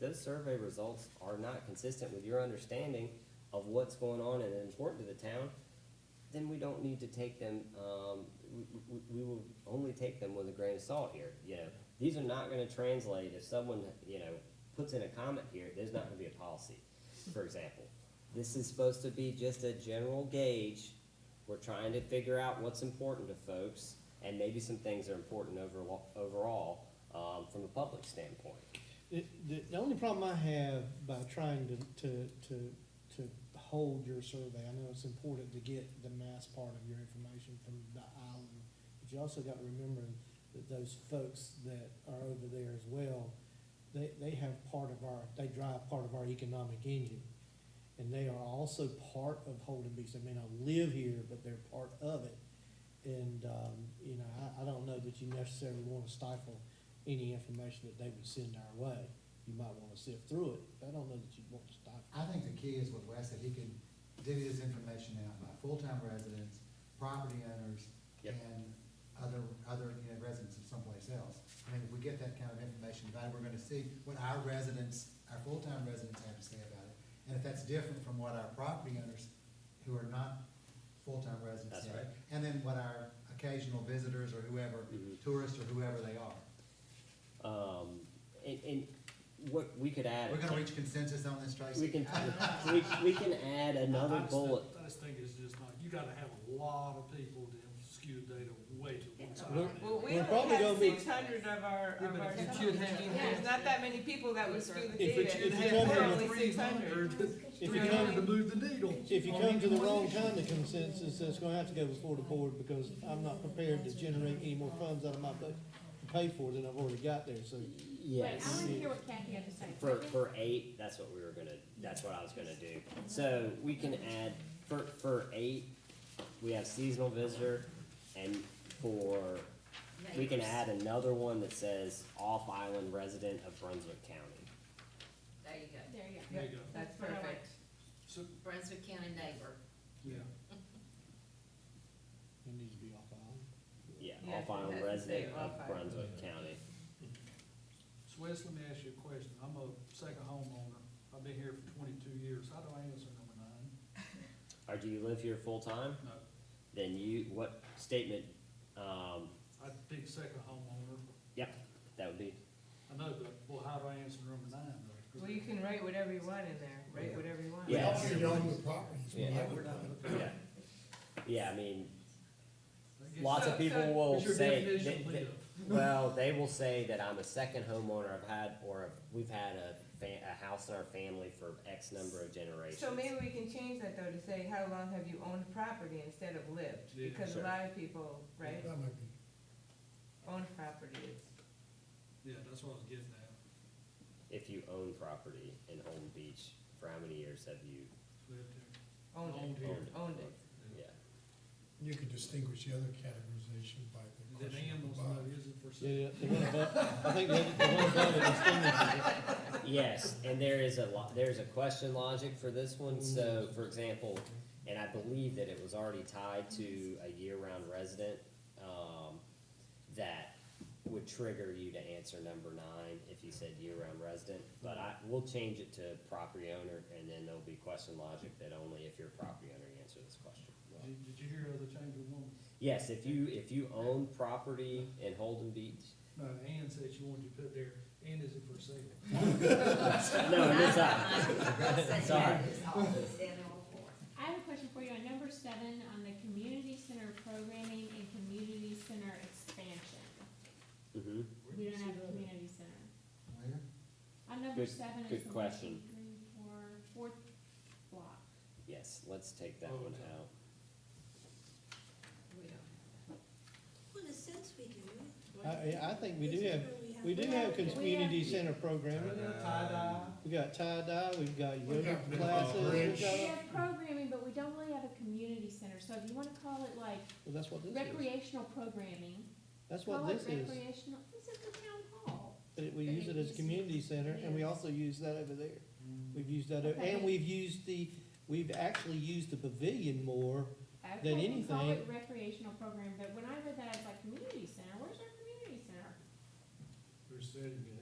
those survey results are not consistent with your understanding of what's going on and important to the town, then we don't need to take them, um, we, we, we will only take them with a grain of salt here, you know. These are not gonna translate if someone, you know, puts in a comment here, there's not gonna be a policy, for example. This is supposed to be just a general gauge, we're trying to figure out what's important to folks, and maybe some things are important overall, overall, um, from a public standpoint. The, the, the only problem I have by trying to, to, to, to hold your survey, I know it's important to get the mass part of your information from the island, but you also got to remember that those folks that are over there as well, they, they have part of our, they drive part of our economic engine. And they are also part of Holden Beach. They may not live here, but they're part of it. And, um, you know, I, I don't know that you necessarily want to stifle any information that they would send our way. You might want to sift through it. I don't know that you'd want to stifle. I think the key is what Wes said, he can divvy this information out by full-time residents, property owners, Yep. and other, other, you know, residents of someplace else. I mean, if we get that kind of information, then we're gonna see what our residents, our full-time residents have to say about it. And if that's different from what our property owners, who are not full-time residents, That's say, right. and then what our occasional visitors or whoever, Mhm. tourists or whoever they are. Um, and, and what we could add. We're gonna reach consensus on this, Tracy? We can, we, we can add I another just think- bullet. I just think it's just not, you gotta have a lot of people to skew data way to one side. Well- Well, we We're only probably had gonna be- six hundred of our, Yeah, of but our. if you have- There's not that many people that would skew the If it- data. if you There's come here- only 600. If Three you hundred to come, move the needle. if you come to the wrong kind of consensus, that's going to have to go before the board because I'm not prepared to generate any more funds out of my budget to pay for than I've already got there, so. Wait, I Yes, wanna hear what Kathy had to say. for, for eight, that's what we were gonna, that's what I was gonna do. So we can add, for, for eight, we have seasonal visitor and for, we can add another one that says off-island resident of Brunswick County. There you go. There you go. There you go. That's What I like. perfect. So, Brunswick County neighbor. yeah, It needs to be off island. Yeah, Yeah, off-island that's the resident of off-island. Brunswick County. so Wes, let me ask you a question. I'm a second homeowner. I've been here for twenty-two years. How do I answer number nine? Or do you live here full-time? No, Then you, what statement, um, I'd be second homeowner. yep, that would be, I know, but, well, how do I answer number nine? though? Well, you can write whatever you want in there, write whatever you want. Yeah. Yeah, we're not looking- yeah. Yeah, I mean, That gets- Lots of So- people so- will What's your say, definition they- of they- live? well, they will say that I'm a second homeowner, I've had, or we've had a fa- a house in our family for X number of generations. So maybe we can change that though to say, how long have you owned property instead of lived? Yeah. Because a Sure. lot of people, right, That might be, own property is. Yeah, that's what I was getting at. If you own property in Holden Beach, for how many years have you Lived there. Owned Owned it, here. owned it. Yeah, you could distinguish the other categorization by the Then question Ann at the wants to know, bottom. is it for sale? Yeah, the one above, I think the other- the one above it distinguishes it. yes, and there is a lo- there's a question logic for this one, so, for example, and I believe that it was already tied to a year-round resident, um, that would trigger you to answer number nine if you said year-round resident, but I, we'll change it to property owner, and then there'll be question logic that only if you're a property owner, you answer this question. Did, did you hear the change of woman? Yes, if you, if you own property in Holden Beach, No, Ann said she wanted you to put there, Ann is it for sale? no, uh, it is not. Sorry. I have a question for you on number seven, on the community center programming and community center expansion. hmm We don't have a community center. Where? On number Good- seven good is the one, two, question. three, four, fourth block. yes, let's take that Oh, one okay. out. Well, in a sense we do. I, I think we do have, we do have community center programming. Tie-dye. We got tie-dye, we've got yoga got classes, we've bridge. We got, have programming, but we don't really have a community center, so if you wanna call it like well, that's what this is. recreational programming, That's call what it this is. recreational, this is the town hall. But it- we use it as a community center and we also use that over there. We've used that, o- Okay. and we've used the, we've actually used the pavilion more. Okay, than we Call it anything- recreational program, but when I read that, I was like, community center, where's our community center? They're setting it Hmm?